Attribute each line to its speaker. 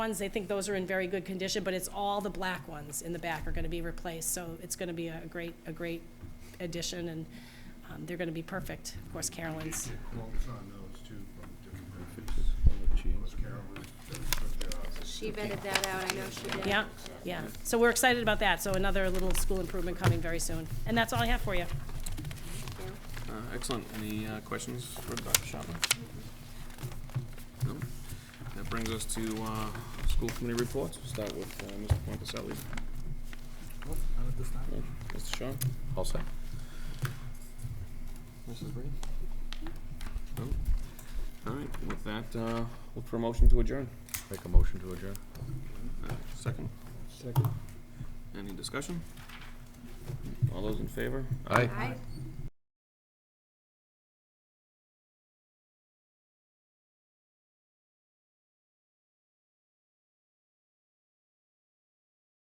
Speaker 1: ones, they think those are in very good condition, but it's all the black ones in the back are going to be replaced, so it's going to be a great, a great addition, and um, they're going to be perfect. Of course, Carolyn's,
Speaker 2: quotes on those too from different vendors. Was Carol was, was, uh,
Speaker 3: She vetted that out, I know she did.
Speaker 1: yeah, yeah. So we're excited about that, so another little school improvement coming very soon. And that's all I have for you.
Speaker 4: Uh, Excellent. Any uh, questions for Dr. Chapman? No? That brings us to uh, school committee reports. We'll start with uh, Mr. Pointaselli. Yeah, Mr. Shaw? All set. Mrs. Reed? No? All right, with that, uh, look for a motion to adjourn.
Speaker 5: Make a motion to adjourn.
Speaker 4: Uh, Second? Second. Any discussion? All those in favor?
Speaker 5: Aye.
Speaker 3: Aye.